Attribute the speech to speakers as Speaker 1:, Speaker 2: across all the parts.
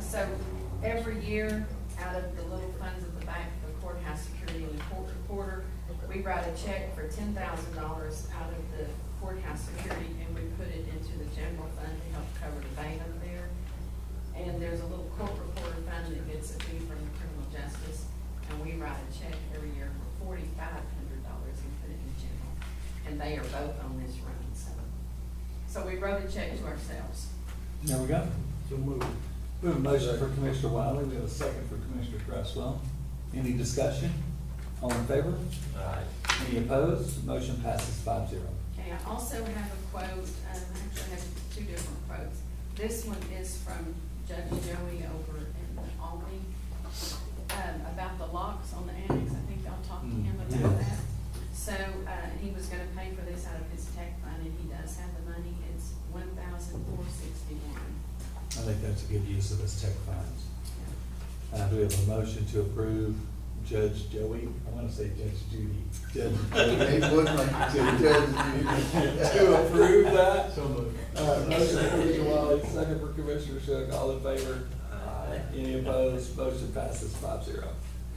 Speaker 1: so every year, out of the little funds at the bank, the courthouse security and the court reporter, we write a check for ten thousand dollars out of the courthouse security, and we put it into the general fund to help cover the bank over there. And there's a little court reporter fund that gets a fee from the criminal justice, and we write a check every year for forty-five hundred dollars and put it in general. And they are both on this run, so, so we wrote a check to ourselves.
Speaker 2: There we go.
Speaker 3: So move.
Speaker 2: We have a motion for Commissioner Wiley, we have a second for Commissioner Cresswell. Any discussion? All in favor?
Speaker 3: Aye.
Speaker 2: Any opposed? Motion passes five zero.
Speaker 1: Okay, I also have a quote, um, actually I have two different quotes. This one is from Judge Joey over in Albany, um, about the locks on the annex, I think I'll talk to him about
Speaker 2: Yeah.
Speaker 1: that. So, uh, he was gonna pay for this out of his tech fund, and he does have the money, it's one thousand four sixty-one.
Speaker 2: I think that's a good use of this tech funds. Uh, do we have a motion to approve Judge Joey? I want to say Judge Judy. Judge Judy.
Speaker 4: They would like to, Judge Judy.
Speaker 2: To approve that?
Speaker 3: So moved.
Speaker 2: Uh, motion for Commissioner Wiley, second for Commissioner Shook, all in favor?
Speaker 3: Aye.
Speaker 2: Any opposed? Motion passes five zero.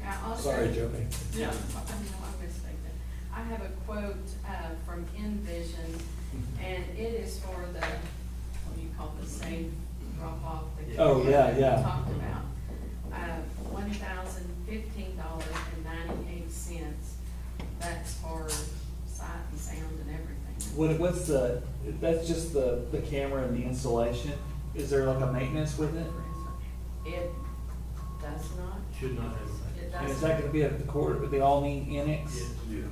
Speaker 1: I also.
Speaker 2: Sorry,
Speaker 1: No,
Speaker 2: Joey.
Speaker 1: I know, I mistake that. I have a quote, uh, from Envision, and it is for the, what do you call the safe drop off? that
Speaker 2: Oh,
Speaker 1: we
Speaker 2: yeah, yeah.
Speaker 1: Talked about, uh, one thousand fifteen dollars and ninety-eight cents. That's for sight and sound and everything.
Speaker 2: What, what's the, that's just the, the camera and the installation? Is there like a maintenance with it?
Speaker 1: It does not,
Speaker 3: Should not have.
Speaker 1: it
Speaker 2: And is
Speaker 1: does,
Speaker 2: that gonna be at the court, but they all need annex?
Speaker 4: Yes,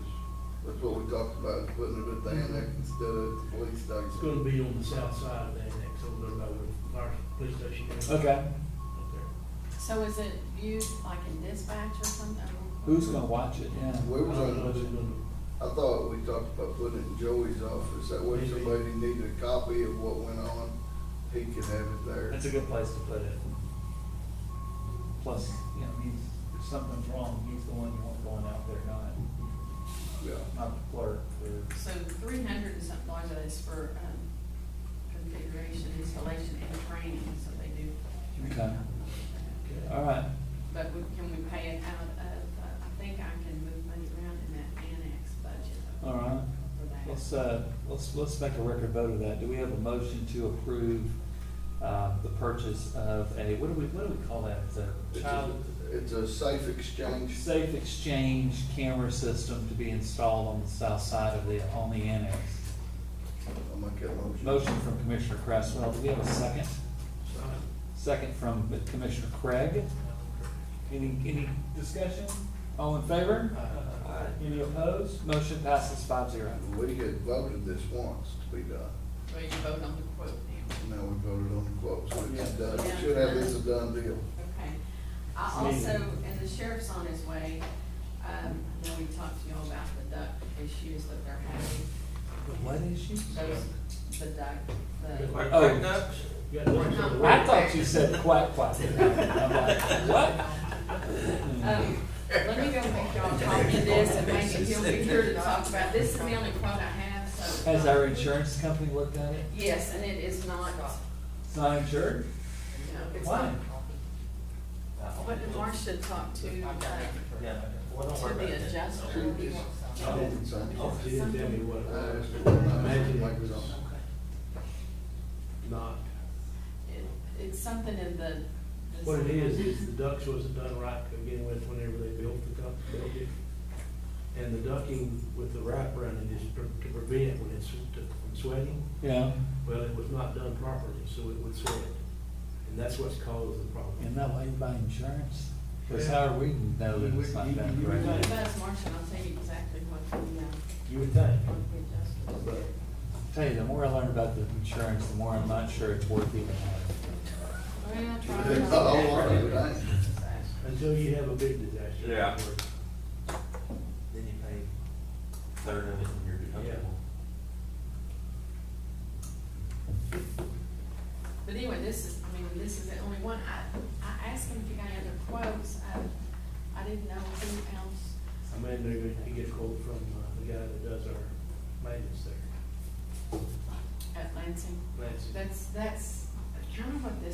Speaker 4: that's what we talked about, putting it at the annex instead of the police
Speaker 3: It's
Speaker 4: station.
Speaker 3: gonna be on the south side of the annex over there by the fire, police station.
Speaker 2: Okay,
Speaker 3: Up there.
Speaker 1: so is it viewed like in dispatch or something?
Speaker 2: who's gonna watch it, yeah?
Speaker 4: We was
Speaker 3: I don't know if
Speaker 4: on,
Speaker 3: it's gonna-
Speaker 4: I thought we talked about putting it in Joey's office, that way if somebody needed a copy of what went on, he could have it there.
Speaker 2: That's a good place to put it. Plus, you know, he's, if something's wrong, he's the one you want going out there, not,
Speaker 4: Yeah.
Speaker 2: not the clerk or.
Speaker 1: So three hundred and something dollars of this for, um, configuration, installation and training, so they do. train
Speaker 2: Okay.
Speaker 1: out.
Speaker 3: Okay.
Speaker 2: All right,
Speaker 1: But we, can we pay it out of, uh, I think I can move money around in that annex budget.
Speaker 2: all right.
Speaker 1: For that.
Speaker 2: Let's, uh, let's, let's make a record vote of that. Do we have a motion to approve, uh, the purchase of a, what do we, what do we call that? It's a
Speaker 4: It's
Speaker 2: child
Speaker 4: a- It's a safe exchange.
Speaker 2: safe exchange camera system to be installed on the south side of the, on the annex.
Speaker 4: I'll make that motion.
Speaker 2: Motion from Commissioner Cresswell. Do we have a second? Second from Commissioner Craig. Any, any discussion? All in favor?
Speaker 3: Aye.
Speaker 2: Any opposed? Motion passes five zero.
Speaker 4: We had voted this once to be done,
Speaker 1: Well, you vote on the quote now.
Speaker 4: and now we voted on the quote, so it's
Speaker 2: Yeah.
Speaker 4: done, We should have this a done deal.
Speaker 1: Okay. I
Speaker 2: It's
Speaker 1: also,
Speaker 2: needed.
Speaker 1: and the sheriff's on his way, um, I know we talked to y'all about the duck issues that they're having,
Speaker 2: What issue?
Speaker 1: those, the duck, the.
Speaker 2: Oh.
Speaker 3: You got one for the
Speaker 1: Aye.
Speaker 2: I thought you said quack quack. I'm like, what?
Speaker 1: Um, Let me go make y'all copy of this and make it, he'll be here to talk about, this is the only quote I have, so.
Speaker 2: Has our insurance company looked at it?
Speaker 1: Yes, and it is not, no,
Speaker 2: It's not insured?
Speaker 1: it's
Speaker 2: Why?
Speaker 1: not. What did Marcia talk to, uh,
Speaker 5: Yeah, well, don't worry
Speaker 1: to
Speaker 5: about
Speaker 1: the
Speaker 5: it.
Speaker 1: adjuster? He wants
Speaker 4: I don't think so.
Speaker 3: Oh, she didn't tell me what it
Speaker 4: I
Speaker 3: was.
Speaker 4: asked her when I asked her
Speaker 3: Imagine
Speaker 4: what
Speaker 3: it
Speaker 4: it was
Speaker 3: was
Speaker 4: on.
Speaker 3: not,
Speaker 1: it- It's something in the. the-
Speaker 3: what it is, is the ducts wasn't done right to begin with whenever they built the duct building. And the ducking with the wrap around it is to to prevent when it's, to- from sweating.
Speaker 2: Yeah.
Speaker 3: Well, it was not done properly, so it would sweat. And that's what's caused the
Speaker 2: Isn't
Speaker 3: problem.
Speaker 2: that why you buy insurance? Because how are we to know that it's not done
Speaker 1: If
Speaker 2: correctly?
Speaker 1: that's Marcia, I'll tell you exactly what the, uh,
Speaker 3: You would think,
Speaker 1: what the adjuster.
Speaker 3: but
Speaker 2: Tell you, the more I learn about the insurance, the more I'm not sure it's worth even having.
Speaker 1: Well, try
Speaker 4: It's
Speaker 1: not-
Speaker 4: not all right, it ain't.
Speaker 3: until you have a big disaster.
Speaker 5: Yeah. Then you pay a third of it and you're deductible.
Speaker 1: But anyway, this is, I mean, this is the only one, I, I asked him if he got any other quotes, I, I didn't know who else.
Speaker 3: I mean, they're going to get a quote from uh, the guy that does our maintenance there.
Speaker 1: at Lansing.
Speaker 3: Lansing.
Speaker 1: That's, that's kind of what this